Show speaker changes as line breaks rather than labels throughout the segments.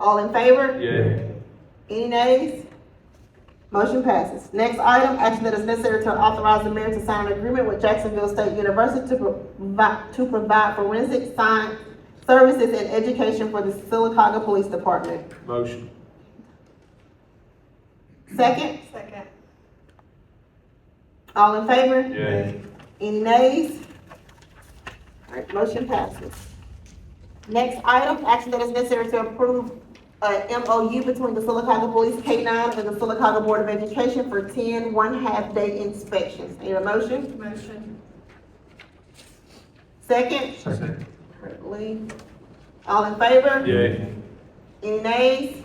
All in favor?
Yay.
Any nays? Motion passes. Next item, action that is necessary to authorize the mayor to sign an agreement with Jacksonville State University to provide, to provide forensic science services and education for the Silicaca Police Department.
Motion.
Second,
Second.
all in favor?
Yay.
Any nays? All right, motion passes. Next item, action that is necessary to approve a MOU between the Silicaca Police K nine and the Silicaca Board of Education for 10 one half day inspections. Need a motion?
Motion.
Second?
Second.
Lee. All in favor?
Yay.
Any nays?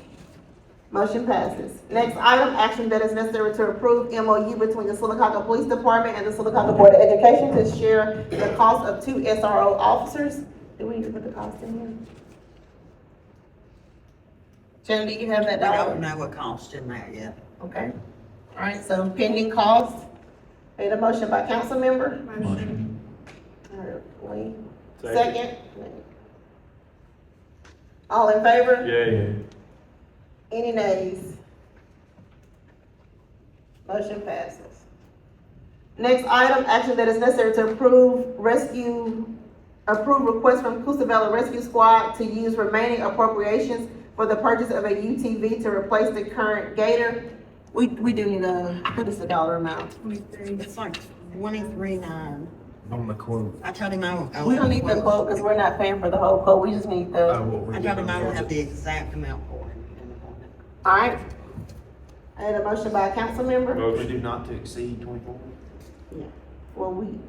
Motion passes. Next item, action that is necessary to approve MOU between the Silicaca Police Department and the Silicaca Board of Education to share the cost of two SRO officers. Do we need to put the cost in here? Shannon, do you have that
We don't
down?
know what cost in there yet.
Okay. All right, so pending costs. Made a motion by council member.
Motion.
All right, Lee. Second. All in favor?
Yay.
Any nays? Motion passes. Next item, action that is necessary to approve rescue, approve request from Coosavella Rescue Squad to use remaining appropriations for the purchase of a UTV to replace the current Gator. We, we do need a, what is the dollar amount?
Twenty-three.
It's like twenty-three nine.
On the quote.
I told him I would. I
We
would
don't need the quote, because we're not paying for the whole quote, we just need
uh,
the,
what we
I
did
told him I would
on
have
the-
the exact amount for him in the morning.
alright? I had a motion by a council member,
We
Motion.
do not to exceed twenty-four.
well, we,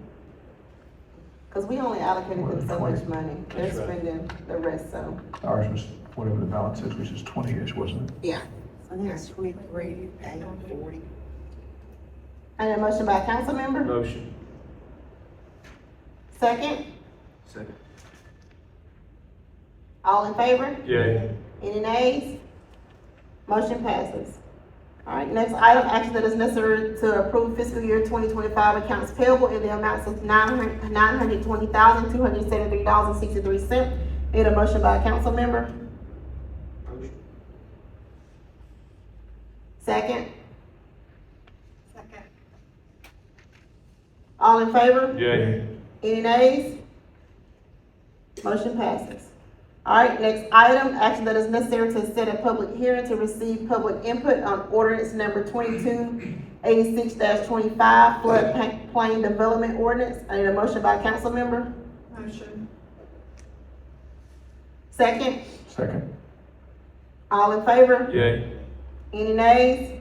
because we only allocated them so much money, they're
That's right.
spending the rest, so.
Ours was whatever the balance is, which is twenty-ish, wasn't it?
Yeah.
So there's twenty-three eight forty.
I need a motion by a council member.
Motion.
Second,
Second.
all in favor?
Yay.
Any nays? Motion passes. All right, next item, action that is necessary to approve fiscal year twenty twenty-five accounts payable in the amounts of nine hundred, nine hundred twenty thousand, two hundred seventy-three dollars and sixty-three cents. Need a motion by a council member.
Motion.
Second,
Second.
all in favor?
Yay.
Any nays? Motion passes. All right, next item, action that is necessary to set a public hearing to receive public input on ordinance number twenty-two eighty-six twenty-five flood pa- plain development ordinance. I need a motion by council member.
Motion.
Second,
Second.
all in favor?
Yay.
Any nays?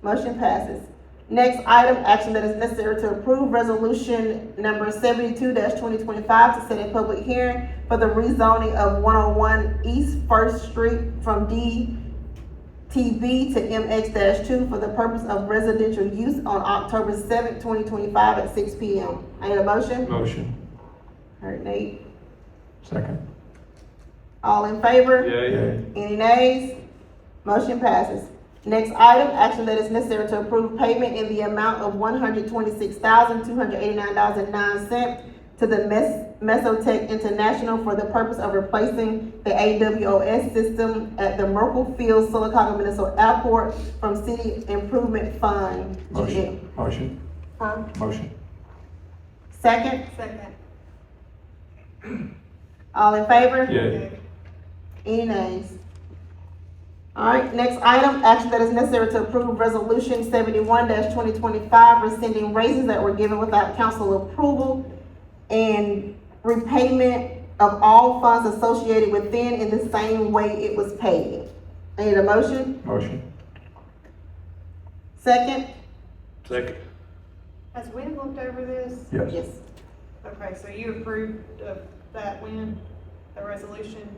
Motion passes. Next item, action that is necessary to approve resolution number seventy-two twenty twenty-five to set a public hearing for the rezoning of one oh one East First Street from DTB to MX two for the purpose of residential use on October seventh, twenty twenty-five at six P M. I need a motion?
Motion.
Heard Nate.
Second.
All in favor?
Yay.
Any nays? Motion passes. Next item, action that is necessary to approve payment in the amount of one hundred twenty-six thousand, two hundred eighty-nine dollars and nine cents to the Mes- Mesotech International for the purpose of replacing the AWOS system at the Merkle Field Silicaca Municipal Airport from City Improvement Fund.
Motion, motion,
Huh?
motion.
Second,
Second.
all in favor?
Yay.
Any nays? All right, next item, action that is necessary to approve resolution seventy-one twenty twenty-five, rescinding raises that were given without council approval and repayment of all funds associated within in the same way it was paid. I Need a motion?
Motion.
Second?
Second.
Has Wynn looked over this?
Yes.
Okay, so you approved of that, Wynn, the resolution?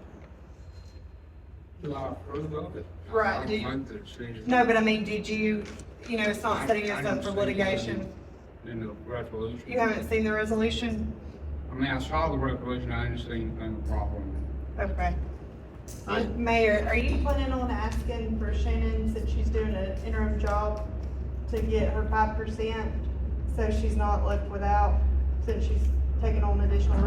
Well, I approved of it.
Right,
I
do you-
approved it, she just-
No, but I mean, did you, you know, it's not setting us up for litigation.
In the resolution.
You haven't seen the resolution?
I mean, I saw the resolution, I didn't see anything problem.
Okay. Mayor, are you planning on asking for Shannon, since she's doing an interim job, to get her five percent? So she's not left without, since she's taking on additional